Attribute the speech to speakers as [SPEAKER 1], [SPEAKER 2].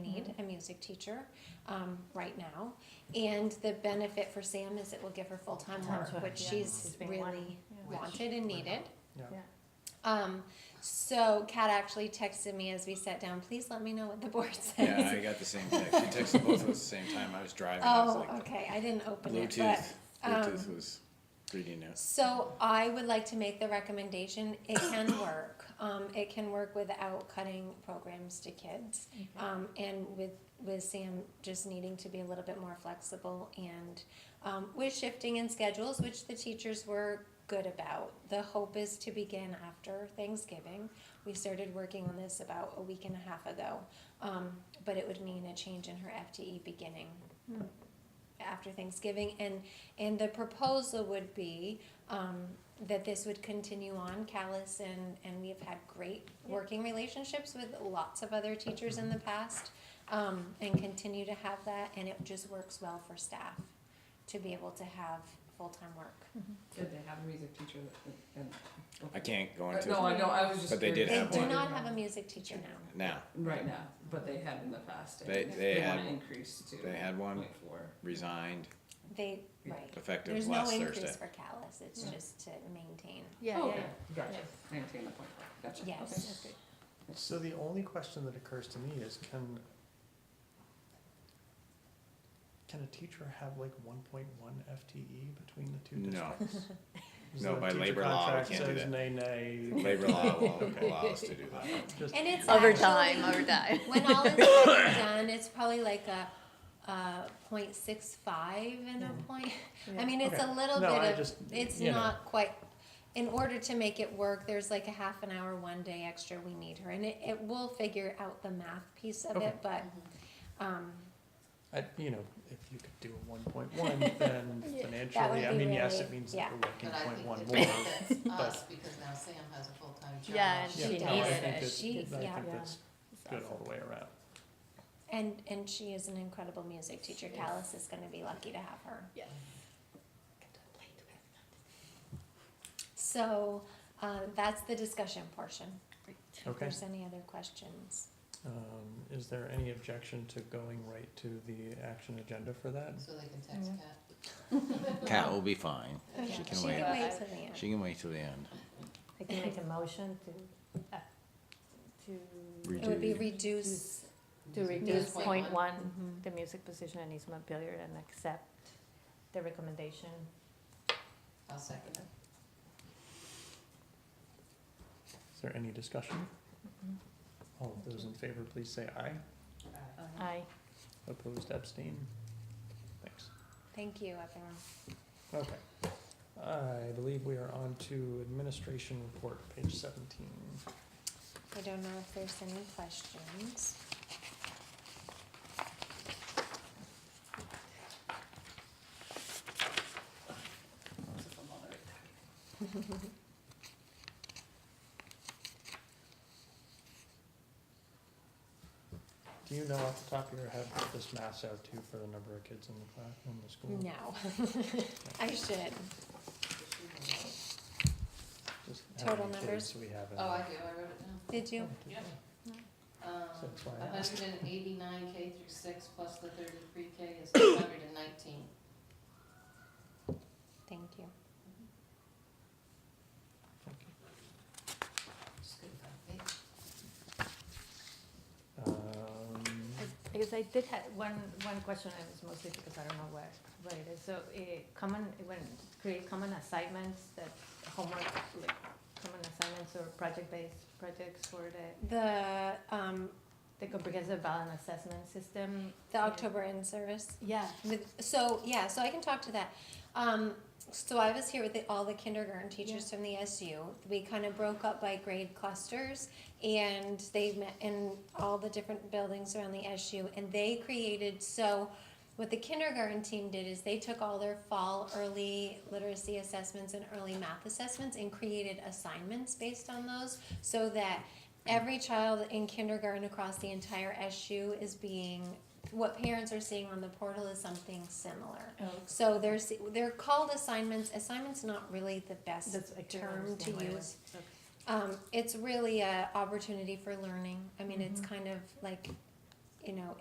[SPEAKER 1] Mm-hmm.
[SPEAKER 2] music teacher um, right now. And the benefit for Sam is it will give her full-time work,
[SPEAKER 1] Full-time.
[SPEAKER 2] which
[SPEAKER 1] Yeah.
[SPEAKER 2] she's
[SPEAKER 1] She's been
[SPEAKER 2] really
[SPEAKER 1] wanting. Yeah.
[SPEAKER 2] wanted and needed.
[SPEAKER 3] Yeah.
[SPEAKER 1] Yeah.
[SPEAKER 2] Um, so Kat actually texted me as we sat down, please let me know what the board
[SPEAKER 4] Yeah,
[SPEAKER 2] says.
[SPEAKER 4] I got the same text. She texted both of us at the same time. I was driving. I was
[SPEAKER 2] Oh,
[SPEAKER 4] like,
[SPEAKER 2] okay, I didn't open it,
[SPEAKER 4] Bluetooth.
[SPEAKER 2] but, um,
[SPEAKER 4] Bluetooth was reading it.
[SPEAKER 2] so I would like to make the recommendation, it can work. Um, it can work without cutting programs to kids. Um, and with, with Sam just needing to be a little bit more flexible and, um, with shifting in schedules, which the teachers were good about. The hope is to begin after Thanksgiving. We started working on this about a week and a half ago. Um, but it would mean a change in her FTE beginning after Thanksgiving. And, and the proposal would be, um, that this would continue on, Callis and, and we have had great working relationships with lots of other teachers in the past, um, and continue to have that, and it just works well for staff to be able to have full-time work.
[SPEAKER 5] Did they have a music teacher that- and?
[SPEAKER 4] I can't go
[SPEAKER 5] Uh,
[SPEAKER 4] into
[SPEAKER 5] No, I know, I was just.
[SPEAKER 4] But they did
[SPEAKER 2] They
[SPEAKER 5] curious.
[SPEAKER 4] have
[SPEAKER 2] do
[SPEAKER 4] one.
[SPEAKER 2] not have a music teacher now.
[SPEAKER 4] now.
[SPEAKER 5] Right now, but they had in the past. I
[SPEAKER 4] They-
[SPEAKER 5] think.
[SPEAKER 4] they had-
[SPEAKER 5] want to increase to.
[SPEAKER 4] they had one.
[SPEAKER 5] 1.4.
[SPEAKER 4] Resigned
[SPEAKER 2] They, right.
[SPEAKER 4] effective
[SPEAKER 2] There's no
[SPEAKER 4] last Thursday.
[SPEAKER 2] increase for Callis, it's
[SPEAKER 5] Yeah.
[SPEAKER 2] just to maintain.
[SPEAKER 1] Yeah,
[SPEAKER 5] Oh,
[SPEAKER 1] yeah,
[SPEAKER 5] okay, gotcha,
[SPEAKER 1] Yeah.
[SPEAKER 5] maintain the point, five. gotcha. okay.
[SPEAKER 2] Yes.
[SPEAKER 1] that's good.
[SPEAKER 3] So the only question that occurs to me is can can a teacher have like one point one FTE between the two
[SPEAKER 4] No.
[SPEAKER 3] districts? Is
[SPEAKER 4] No,
[SPEAKER 3] the
[SPEAKER 4] by
[SPEAKER 3] teacher
[SPEAKER 4] labor law, we
[SPEAKER 3] contract
[SPEAKER 4] can't do
[SPEAKER 3] says
[SPEAKER 4] that.
[SPEAKER 3] Nay, nay.
[SPEAKER 4] Labor law will allow us to do that.
[SPEAKER 3] Just-
[SPEAKER 2] And it's
[SPEAKER 1] Overtime,
[SPEAKER 2] actually-
[SPEAKER 1] overtime.
[SPEAKER 2] When all is said and done, it's probably like a, a point six five and a
[SPEAKER 3] Mhm.
[SPEAKER 2] point, I
[SPEAKER 1] Yeah.
[SPEAKER 2] mean, it's a
[SPEAKER 3] Okay.
[SPEAKER 2] little
[SPEAKER 3] No, I
[SPEAKER 2] bit of,
[SPEAKER 3] just,
[SPEAKER 2] it's
[SPEAKER 3] you know.
[SPEAKER 2] not quite, in order to make it work, there's like a half an hour, one day extra we need her, and it, it will figure out the math piece of it,
[SPEAKER 3] Okay.
[SPEAKER 2] but, um,
[SPEAKER 3] I, you know, if you could do a one point one, then
[SPEAKER 1] Yeah.
[SPEAKER 2] That would
[SPEAKER 3] financially, I
[SPEAKER 2] be
[SPEAKER 3] mean, yes,
[SPEAKER 2] really-
[SPEAKER 3] it means
[SPEAKER 2] yeah.
[SPEAKER 3] that we're
[SPEAKER 6] But
[SPEAKER 3] working
[SPEAKER 6] I
[SPEAKER 3] point one
[SPEAKER 6] think
[SPEAKER 3] more.
[SPEAKER 6] it's- that's us,
[SPEAKER 3] but-
[SPEAKER 6] because now Sam has a full-time job.
[SPEAKER 1] Yeah, and
[SPEAKER 3] Yeah,
[SPEAKER 1] she
[SPEAKER 2] She
[SPEAKER 3] no, I
[SPEAKER 2] does.
[SPEAKER 3] think that-
[SPEAKER 2] She- yeah.
[SPEAKER 3] I think that's
[SPEAKER 1] It's
[SPEAKER 3] good all
[SPEAKER 1] awesome.
[SPEAKER 3] the way around.
[SPEAKER 2] and, and she is an incredible music teacher,
[SPEAKER 6] Yes.
[SPEAKER 2] Callis is gonna be lucky to have her.
[SPEAKER 1] Yes.
[SPEAKER 2] So, uh, that's the discussion portion, if
[SPEAKER 3] Okay.
[SPEAKER 2] there's any other questions.
[SPEAKER 3] Um, is there any objection to going right to the action agenda for that?
[SPEAKER 6] So they can text
[SPEAKER 1] Mhm.
[SPEAKER 6] Kat.
[SPEAKER 4] Cat will be fine.
[SPEAKER 1] Okay.
[SPEAKER 4] She can
[SPEAKER 2] She
[SPEAKER 4] wait.
[SPEAKER 2] can wait till the end.
[SPEAKER 4] She can wait till the end.
[SPEAKER 1] I can make a motion to, uh, to,
[SPEAKER 4] Re-
[SPEAKER 2] It would be
[SPEAKER 4] Redo.
[SPEAKER 2] reduce,
[SPEAKER 1] to reduce point
[SPEAKER 6] 0.1.
[SPEAKER 1] one,
[SPEAKER 2] Mhm.
[SPEAKER 1] the music position in East Montpelier and accept the recommendation.
[SPEAKER 6] I'll second it.
[SPEAKER 3] Is there any discussion?
[SPEAKER 1] Mm-hmm.
[SPEAKER 3] All of those in favor, please say aye.
[SPEAKER 5] Uh,
[SPEAKER 2] Uh-huh.
[SPEAKER 1] Aye.
[SPEAKER 3] Opposed, abstain? Thanks.
[SPEAKER 2] thank you, everyone.
[SPEAKER 3] Okay. I believe we are on to administration report, page seventeen.
[SPEAKER 2] I don't know if there's any questions.
[SPEAKER 6] It's a moderate.
[SPEAKER 3] Do you know off the top of your head what this maps out to for the number of kids in the class, in the school?
[SPEAKER 2] No, I should.
[SPEAKER 3] Just how
[SPEAKER 2] Total
[SPEAKER 3] many
[SPEAKER 2] numbers?
[SPEAKER 3] kids we have in
[SPEAKER 6] Oh, I
[SPEAKER 3] there.
[SPEAKER 6] do, I wrote it down.
[SPEAKER 2] Did you?
[SPEAKER 6] Yep.
[SPEAKER 3] So that's why I
[SPEAKER 6] Um,
[SPEAKER 3] asked.
[SPEAKER 6] hundred and eighty-nine K through six plus the thirty-three K is two hundred and nineteen.
[SPEAKER 2] Thank you.
[SPEAKER 3] Um,
[SPEAKER 1] I guess I did have one, one question, and it's mostly because I don't know where, where it is, so, eh, common, when, create common assignments that homework, like, common assignments or project-based projects for the,
[SPEAKER 2] The, um,
[SPEAKER 1] the comprehensive balance assessment system.
[SPEAKER 2] the October in-service
[SPEAKER 1] Yeah,
[SPEAKER 2] with, so, yeah, so I can talk to that. Um, so I was here with the, all the kindergarten teachers from the SU. We kind of broke up by grade clusters and they met in all the different buildings around the SU and they created, so what the kindergarten team did is they took all their fall early literacy assessments and early math assessments and created assignments based on those so that every child in kindergarten across the entire SU is being what parents are seeing on the portal is something similar.
[SPEAKER 1] oh,
[SPEAKER 2] So there's they're called assignments. Assignments not really the best
[SPEAKER 1] that's, I can't
[SPEAKER 2] term to
[SPEAKER 1] understand why it
[SPEAKER 2] use.
[SPEAKER 1] was- okay.
[SPEAKER 2] Um,
[SPEAKER 1] Mm-hmm.
[SPEAKER 2] it's really a opportunity for learning. I mean, it's kind of like, you know,